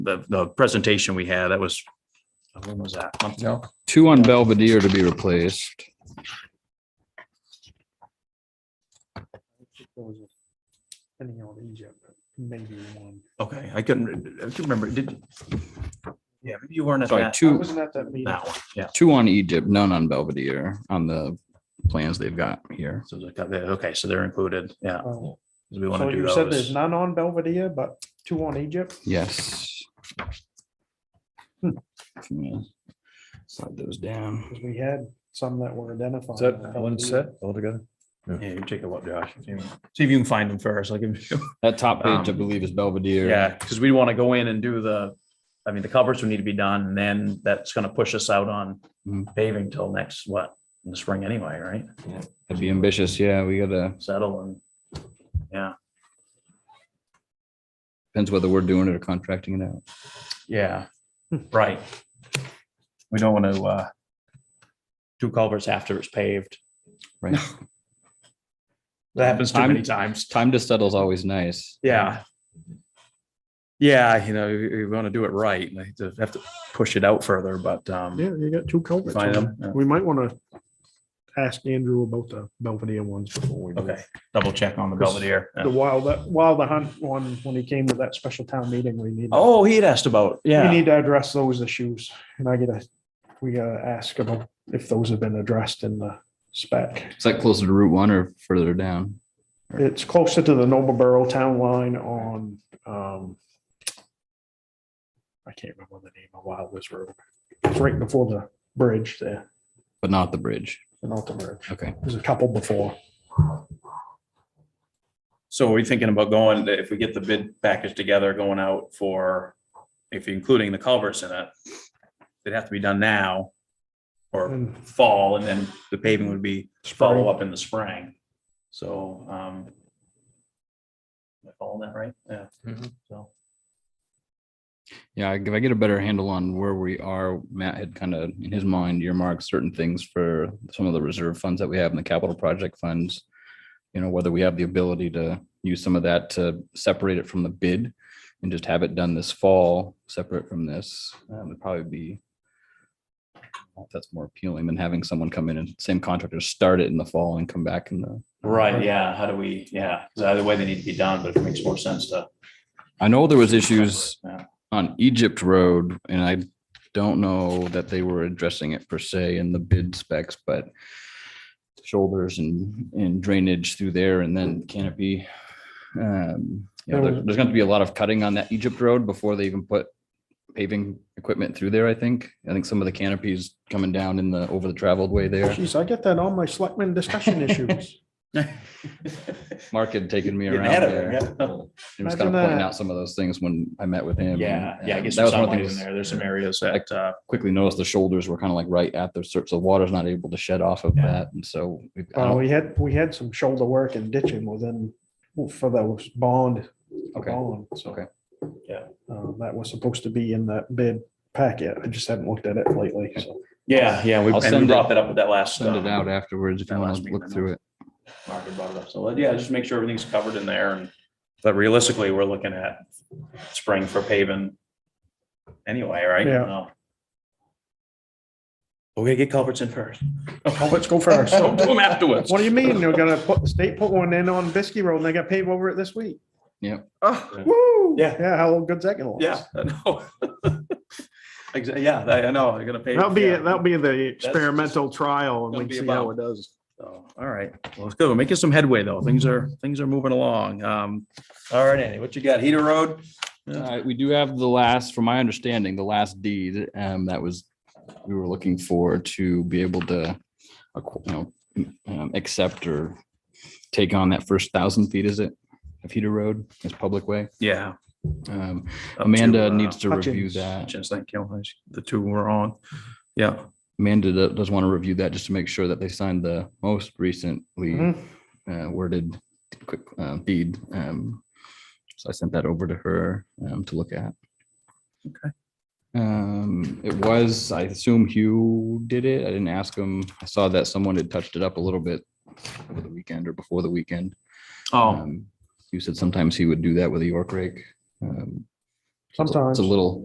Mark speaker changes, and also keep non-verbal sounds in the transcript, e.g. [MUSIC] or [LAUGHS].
Speaker 1: the, the presentation we had, that was, when was that? Month ago?
Speaker 2: Two on Belvedere to be replaced.
Speaker 3: There was a- Depending on Egypt, maybe one.
Speaker 1: Okay, I couldn't, I can remember, did. Yeah, maybe you weren't at
Speaker 2: Sorry,
Speaker 1: that,
Speaker 3: I
Speaker 2: two,
Speaker 3: wasn't at that meeting.
Speaker 1: that one, yeah.
Speaker 2: two on Egypt, none on Belvedere on the plans they've got here.
Speaker 1: So, it's got that- okay, so they're included, yeah,
Speaker 3: Oh.
Speaker 1: 'cause we want
Speaker 3: So
Speaker 1: to do
Speaker 3: you said there's
Speaker 1: those.
Speaker 3: none on Belvedere, but two on Egypt?
Speaker 2: Yes. If you wanna Slide those down.
Speaker 3: Because we had some that were identified.
Speaker 4: Is that
Speaker 3: on
Speaker 4: one
Speaker 3: Belvedere.
Speaker 4: set altogether?
Speaker 1: Yeah, you take a look, Josh. if you- See if you can find them first, like,
Speaker 4: [LAUGHS]
Speaker 1: if you-
Speaker 2: That top page, I
Speaker 1: Um,
Speaker 2: believe, is Belvedere.
Speaker 1: yeah, because we want to go in and do the, I mean, the covers would need to be done, and then that's going to push us out on
Speaker 4: Mm-hmm.
Speaker 2: Mhm.
Speaker 1: paving till next, what, in the spring anyway, right?
Speaker 2: That'd be ambitious. Yeah, we gotta,
Speaker 1: Settle and, yeah,
Speaker 2: depends whether we're doing it or contracting it out.
Speaker 1: yeah, right. We don't want to, uh, do culverts after it's paved.
Speaker 2: Right.
Speaker 1: [LAUGHS] That happens too
Speaker 2: Time-
Speaker 1: many times.
Speaker 2: Time to settle is always nice.
Speaker 1: Yeah. Yeah, you know, we want to do it right. and I hate to have to push it out further, but, um,
Speaker 3: Yeah, you got two culprits.
Speaker 1: Find
Speaker 3: on
Speaker 1: them, yeah.
Speaker 3: there. We might want to ask Andrew about the Belvedere ones before we. do.
Speaker 1: okay, double check on the Belvedere.
Speaker 3: The wild, that wild the hunt one, when he came to that special town meeting, we need.
Speaker 1: Oh, he had asked about,
Speaker 3: We
Speaker 1: yeah,
Speaker 3: need to address those issues and I gotta, we gotta ask about if those have been addressed in the spec.
Speaker 2: Is that closer to Route One or further down?
Speaker 3: It's closer to the Noble Borough town line on, um, I can't remember the name of Wild West Road. It's right before the bridge there,
Speaker 2: But not the bridge.
Speaker 3: the North Bridge.
Speaker 2: Okay.
Speaker 3: There's a couple before.
Speaker 1: so are we thinking about going, if we get the bid package together, going out for, if including the culverts in it, it'd have to be done now or
Speaker 3: And
Speaker 1: fall, and then the paving would be follow up in the spring. So, um, am I following that right? Yeah.
Speaker 2: Mm-hmm.
Speaker 1: So.
Speaker 2: Yeah, if I get a better handle on where we are, Matt had kind of in his mind earmarked certain things for some of the reserve funds that we have in the capital project funds. You know, whether we have the ability to use some of that to separate it from the bid and just have it done this fall, separate from this, um, would probably be. That's more appealing than having someone come in and same contractor start it in the fall and come back in the
Speaker 1: Right, yeah, how do we, yeah, 'cause either way they need to be done, but it makes more sense to.
Speaker 2: I know there
Speaker 1: [LAUGHS]
Speaker 2: was issues
Speaker 1: Yeah.
Speaker 2: on Egypt Road and I don't know that they were addressing it per se in the bid specs, but shoulders and, and drainage through there and then canopy. Um, you know, there- there's going to be a lot of cutting on that Egypt Road before they even put paving equipment through there, I think. I think some of the canopies coming down in the, over the traveled way there.
Speaker 3: Jeez, I get that on my selectmen discussion issues.
Speaker 2: Mark had taken me
Speaker 1: Getting
Speaker 2: around
Speaker 1: ahead of it,
Speaker 2: there.
Speaker 1: yeah.
Speaker 2: He was kind of
Speaker 3: Imagine
Speaker 2: pointing
Speaker 3: that.
Speaker 2: out some of those things when I met with him.
Speaker 1: Yeah, yeah, I
Speaker 2: Um,
Speaker 1: guess
Speaker 2: that
Speaker 1: there's
Speaker 2: was one
Speaker 1: some
Speaker 2: of the
Speaker 1: light in
Speaker 2: things-
Speaker 1: there, there's some areas that, uh,
Speaker 2: quickly noticed the shoulders were kind of like right at their search. The water's not able to shed off of
Speaker 1: Yeah.
Speaker 2: that. And so we, I
Speaker 3: Uh,
Speaker 2: don't-
Speaker 3: we had, we had some shoulder work and ditching within, for those bond, the
Speaker 2: okay,
Speaker 3: bond, so.
Speaker 2: Okay.
Speaker 1: Yeah.
Speaker 3: Uh, that was supposed to be in that bid packet. I just haven't looked at it lately, so.
Speaker 1: yeah, yeah, we
Speaker 2: I'll
Speaker 1: and we
Speaker 2: send
Speaker 1: brought
Speaker 2: it-
Speaker 1: that up with that last.
Speaker 2: send it
Speaker 1: uh,
Speaker 2: out afterwards if
Speaker 1: that
Speaker 2: you want
Speaker 1: last
Speaker 2: to
Speaker 1: meeting I
Speaker 2: look through it.
Speaker 1: Mark had brought it up, so, uh, yeah, just make sure everything's covered in there and, but realistically, we're looking at spring for paving anyway, right?
Speaker 3: Yeah.
Speaker 1: No. We're gonna get culverts in first.
Speaker 3: Let's go
Speaker 1: [LAUGHS]
Speaker 3: first.
Speaker 1: So do them afterwards.
Speaker 3: What do you mean? They're gonna put, the state put one in on Biskie Road and they got paved over it this week.
Speaker 1: Oh,
Speaker 3: Woo!
Speaker 1: Yeah.
Speaker 3: Yeah, how good's that gonna last?
Speaker 1: [LAUGHS] Yeah, I know. [LAUGHS] Exactly, yeah, I I know, they're gonna pay.
Speaker 3: That'll be,
Speaker 1: yeah.
Speaker 3: it. that'll be the
Speaker 1: just-
Speaker 3: experimental trial
Speaker 1: Gonna
Speaker 3: and we
Speaker 1: be
Speaker 3: see
Speaker 1: about-
Speaker 3: how it does.
Speaker 1: So, all right, well, it's good. We're making some headway though. Things are, things are moving along. Um, all right, Andy, what you got? Heater Road?
Speaker 2: All right, we do have the last, from my understanding, the last deed um, that was, we were looking for to be able to, acqu- you know, um, accept or take on that first thousand feet, is it? Of Heater Road, as public way.
Speaker 1: Yeah.
Speaker 2: Um,
Speaker 1: up to,
Speaker 2: Amanda
Speaker 1: uh,
Speaker 2: needs to review
Speaker 3: Hutchins.
Speaker 2: that.
Speaker 1: Hutchins, thank you. The two were on. Yeah,
Speaker 2: Amanda do- does want to review that just to make sure that they signed the most recently
Speaker 3: Mhm.
Speaker 2: uh, worded quick uh, deed. Um, So I sent that over to her um, to look at.
Speaker 1: Okay.
Speaker 2: Um, It was, I assume Hugh did it. I didn't ask him. I saw that someone had touched it up a little bit over the weekend or before the weekend.
Speaker 1: oh,
Speaker 2: Um, You said sometimes he would do that with a York rake. Um, It's a-
Speaker 3: Sometimes.
Speaker 2: It's a little.